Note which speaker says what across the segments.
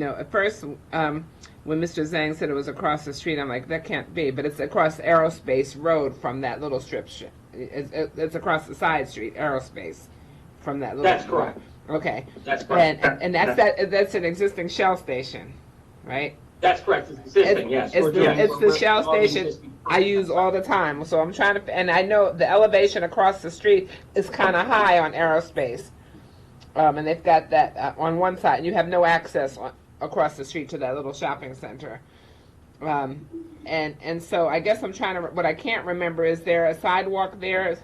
Speaker 1: No, at first, um, when Mr. Zhang said it was across the street, I'm like, that can't be, but it's across Aerospace Road from that little strip. sh- It's, it's across the side street, Aerospace, from that little.
Speaker 2: That's correct.
Speaker 1: Okay.
Speaker 2: That's
Speaker 1: And,
Speaker 2: correct.
Speaker 1: and that's that, that's an existing Shell station, right?
Speaker 2: That's correct, it's existing, yes.
Speaker 1: It's, it's
Speaker 2: Yeah.
Speaker 1: the, it's the Shell
Speaker 2: All the
Speaker 1: station
Speaker 2: existing-
Speaker 1: I use all the time, so I'm trying to, and I know the elevation across the street is kind of high on Aerospace. Um, and they've got that uh, on one side, and you have no access on, across the street to that little shopping center. Um, and, and so I guess I'm trying to, what I can't remember, is there a sidewalk there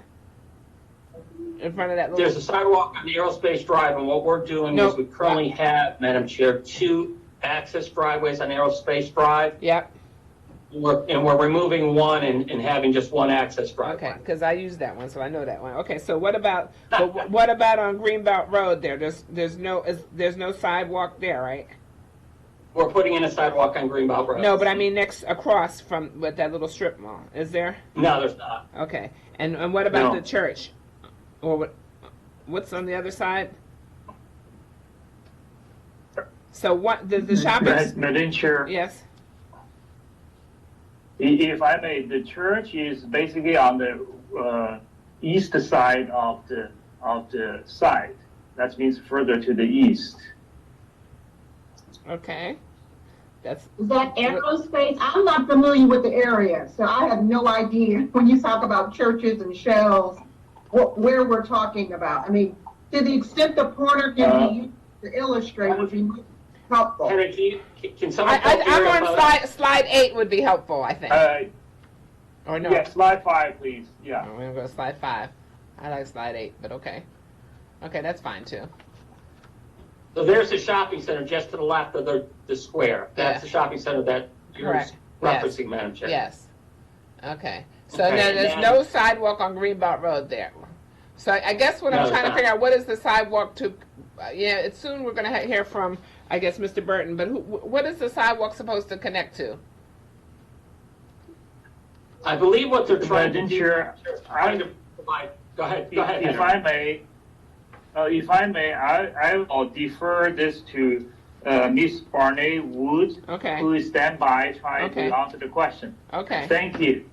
Speaker 1: in front of that little?
Speaker 2: There's a sidewalk on Aerospace Drive, and what we're doing is
Speaker 1: Nope.
Speaker 2: we currently have, Madam Chair, two access driveways on Aerospace Drive.
Speaker 1: Yep,
Speaker 2: We're- And we're removing one and, and having just one access
Speaker 1: okay,
Speaker 2: driveway.
Speaker 1: because I use that one, so I know that one. Okay, so what about, but wh- what about on Greenbelt Road there? There's, there's no, is, there's no sidewalk there, right?
Speaker 2: We're putting in a sidewalk on Greenbelt Road.
Speaker 1: No, but I mean next across from with that little strip mall. Is there?
Speaker 2: No, there's not.
Speaker 1: Okay. And and what about
Speaker 2: No.
Speaker 1: the church? Or what what's on the other side? So what the the
Speaker 3: Ma-
Speaker 1: shopping
Speaker 3: Madam Chair, i-
Speaker 1: Yes.
Speaker 3: if I may, the church is basically on the uh, east side of the, of the site. That means further to the east.
Speaker 1: Okay. That's
Speaker 4: Is that aerospace? I'm not familiar with the area, so I have no idea when you talk about churches and shells, wh- where we're talking about. I mean, to the extent the pointer can be used to illustrate would be helpful.
Speaker 2: Henry, can you, can- can
Speaker 1: I,
Speaker 2: someone?
Speaker 1: I
Speaker 2: talk to
Speaker 1: I'm
Speaker 2: her
Speaker 1: on
Speaker 2: about-
Speaker 1: slide slide eight would be helpful, I think.
Speaker 3: Uh,
Speaker 1: or no.
Speaker 3: yeah, slide five, please, yeah.
Speaker 1: We're gonna go to slide five. I like slide eight, but okay. Okay, that's fine too.
Speaker 2: So there's the shopping center just to the left of the, the square. That's
Speaker 1: Yeah.
Speaker 2: the shopping center that you're
Speaker 1: Correct. Yes.
Speaker 2: referencing, Madam Chair.
Speaker 1: Yes. Okay. So
Speaker 2: Okay,
Speaker 1: now there's
Speaker 2: now-
Speaker 1: no sidewalk on Greenbelt Road there. So I I guess what
Speaker 2: No,
Speaker 1: I'm
Speaker 2: there's
Speaker 1: trying to
Speaker 2: not.
Speaker 1: figure out, what is the sidewalk to, uh, yeah, it's soon we're gonna he- hear from, I guess, Mr. Burton, but who, wh- what is the sidewalk supposed to connect to?
Speaker 2: I believe what they're trying to
Speaker 3: Madam
Speaker 2: do.
Speaker 3: Chair,
Speaker 2: they're Trying to provide, go ahead, go ahead,
Speaker 3: If if
Speaker 2: Henry.
Speaker 3: I may, uh, if I may, I, I will defer this to uh, Ms. Barney Wood,
Speaker 1: Okay,
Speaker 3: who is standby trying
Speaker 1: Okay.
Speaker 3: to answer the question.
Speaker 1: okay.
Speaker 3: Thank you.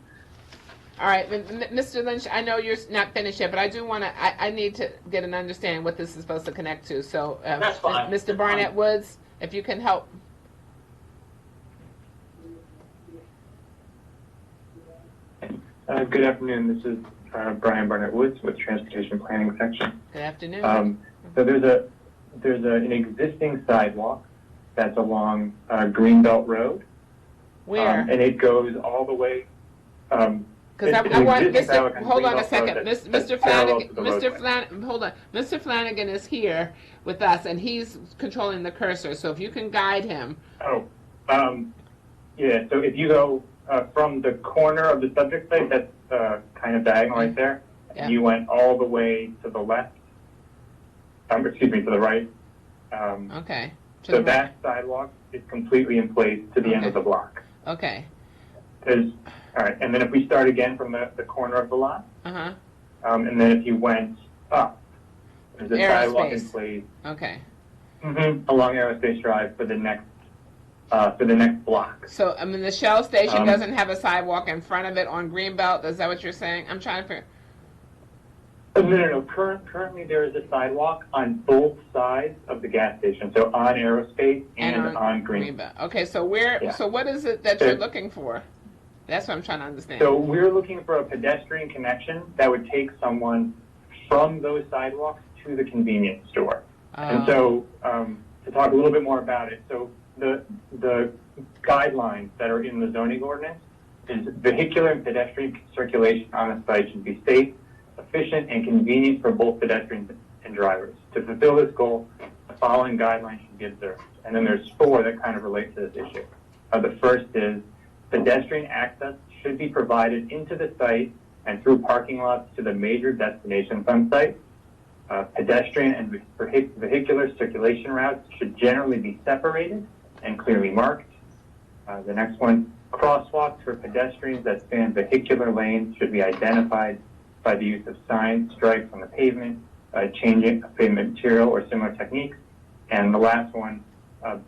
Speaker 1: All right, m- m- Mr. Lynch, I know you're s- not finished yet, but I do wanna, I, I need to get an understanding what this is supposed to connect to, so. uh,
Speaker 2: That's fine. Um, That's
Speaker 1: Mr.
Speaker 2: fine.
Speaker 1: Barnett Woods, if you can help.
Speaker 5: Uh, Good afternoon. This is uh, Brian Barnett Woods with Transportation Planning Section.
Speaker 1: Good afternoon.
Speaker 5: Um, So there's a, there's a- an existing sidewalk that's along uh, Greenbelt Road. um,
Speaker 1: Where?
Speaker 5: And it goes all the way, um,
Speaker 1: Because I,
Speaker 5: It's
Speaker 1: I
Speaker 5: an
Speaker 1: want,
Speaker 5: existing
Speaker 1: Mr.,
Speaker 5: dialogue
Speaker 1: hold on a
Speaker 5: between both
Speaker 1: second,
Speaker 5: roads
Speaker 1: Mis-
Speaker 5: that's
Speaker 1: Mr.
Speaker 5: parallel
Speaker 1: Flanagan,
Speaker 5: to the
Speaker 1: Mr.
Speaker 5: roadway.
Speaker 1: Flanagan, hold on, Mr. Flanagan is here with us, and he's controlling the cursor, so if you can guide him,
Speaker 5: oh, um, yeah, so if you go uh, from the corner of the subject site, that's uh, kind of diagonal right there,
Speaker 1: Yeah.
Speaker 5: and you went all the way to the left, um, excuse me, to the right. um,
Speaker 1: okay. Oh, to
Speaker 5: So
Speaker 1: the right.
Speaker 5: that sidewalk is completely in place to the end of the block.
Speaker 1: Okay,
Speaker 5: There's, all right, and then if we start again from the, the corner of the lot,
Speaker 1: uh-huh,
Speaker 5: um, and then if you went up, there's a sidewalk in
Speaker 1: Aerospace.
Speaker 5: place
Speaker 1: okay.
Speaker 5: mhm, along Aerospace Drive for the next, uh, for the next block.
Speaker 1: So, I mean, the Shell station
Speaker 5: Um,
Speaker 1: doesn't have a sidewalk in front of it on Greenbelt, is that what you're saying? I'm trying to figure,
Speaker 5: Oh, No, no, no, current, currently there is a sidewalk on both sides of the gas station, so on Aerospace
Speaker 1: And on
Speaker 5: and on Green.
Speaker 1: Greenbelt, okay, so where,
Speaker 5: Yeah.
Speaker 1: so what is it that you're
Speaker 5: Okay.
Speaker 1: looking for? That's what I'm trying to understand.
Speaker 5: So we're looking for a pedestrian connection that would take someone from those sidewalks to the convenience store. And
Speaker 1: Uh,
Speaker 5: so, um, to talk a little bit more about it, so the, the guidelines that are in the zoning ordinance is vehicular and pedestrian circulation on the site should be safe, efficient, and convenient for both pedestrians and drivers. To fulfill this goal, the following guidelines should be observed. And then there's four that kind of relate to this issue. Uh, the first is pedestrian access should be provided into the site and through parking lots to the major destinations on site. Uh, pedestrian and vehi- vehicular circulation routes should generally be separated and clearly marked. Uh, the next one, crosswalks for pedestrians that span vehicular lanes should be identified by the use of signs, stripes on the pavement, uh, changing of pavement material or similar techniques. And the last one,